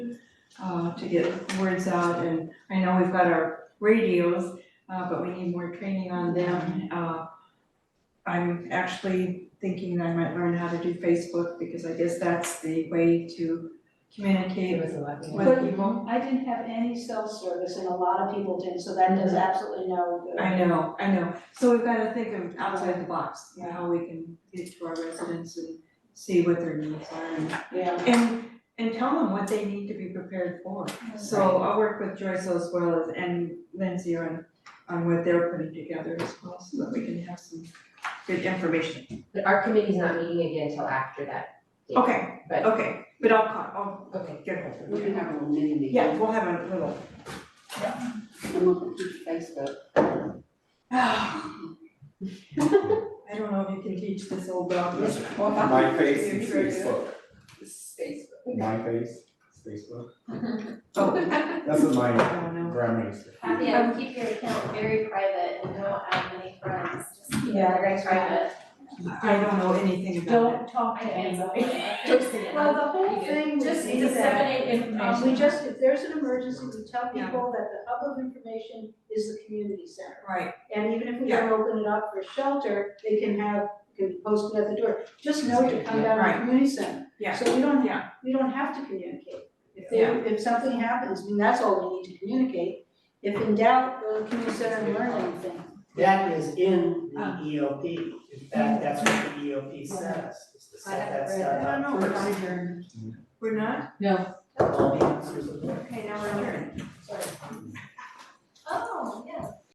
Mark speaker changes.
Speaker 1: uh, to get words out, and I know we've got our radios, uh, but we need more training on them, uh. I'm actually thinking that I might learn how to do Facebook, because I guess that's the way to communicate
Speaker 2: was a lot.
Speaker 1: with people.
Speaker 3: I didn't have any cell service and a lot of people didn't, so that does absolutely no good.
Speaker 1: I know, I know, so we've gotta think of outside the box, you know, how we can get to our residents and see what their needs are and
Speaker 3: Yeah.
Speaker 1: And, and tell them what they need to be prepared for. So I'll work with Joyce as well as, and Lindsay on, on what they're putting together as well, so that we can have some good information.
Speaker 2: But our committee's not meeting again till after that. date.
Speaker 1: Okay,
Speaker 2: But-
Speaker 1: okay, but I'll, call-
Speaker 2: Okay.
Speaker 1: I'll get hold
Speaker 4: We
Speaker 1: of
Speaker 4: can
Speaker 1: them.
Speaker 4: have a little mini meeting.
Speaker 1: Yeah, we'll have a little.
Speaker 4: I'm looking through Facebook.
Speaker 1: I don't know if you can teach this old dog. this.
Speaker 5: My face is
Speaker 1: Future.
Speaker 5: Facebook,
Speaker 2: Space.
Speaker 5: my face is Facebook,
Speaker 1: Oh,
Speaker 5: that's what
Speaker 1: I
Speaker 5: my
Speaker 1: don't know.
Speaker 5: grandma used to.
Speaker 6: Kathy, I would keep your account very private and don't add many friends, just keep it
Speaker 3: Yeah,
Speaker 6: very
Speaker 3: that's right.
Speaker 6: private.
Speaker 1: I don't know anything about it.
Speaker 3: Don't talk
Speaker 6: I
Speaker 3: to
Speaker 6: can't.
Speaker 3: anybody.
Speaker 6: Well,
Speaker 3: Well, the whole thing would
Speaker 6: Just
Speaker 3: be that,
Speaker 6: disseminate
Speaker 3: um,
Speaker 6: information.
Speaker 3: we just, if there's an emergency, we tell
Speaker 1: Yeah.
Speaker 3: people that the hub of information is the community center.
Speaker 1: Right,
Speaker 3: And even if we don't open it up for shelter, they can have, can post it at the door, just know to come down to
Speaker 1: Right.
Speaker 3: the community center.
Speaker 1: Yeah.
Speaker 3: So we don't,
Speaker 1: Yeah.
Speaker 3: we don't have to communicate. If they,
Speaker 1: Yeah.
Speaker 3: if something happens, I mean, that's all we need to communicate. If in doubt, go to the community center and learn anything.
Speaker 7: That is in the
Speaker 1: Ah.
Speaker 7: EOP, in fact, that's what the EOP says, is to set that stuff
Speaker 1: I
Speaker 7: up.
Speaker 1: don't know, we're not adjourned. We're not?
Speaker 7: All the answers are there.
Speaker 1: Okay, now we're adjourned.
Speaker 3: Sorry.
Speaker 6: Oh, yeah.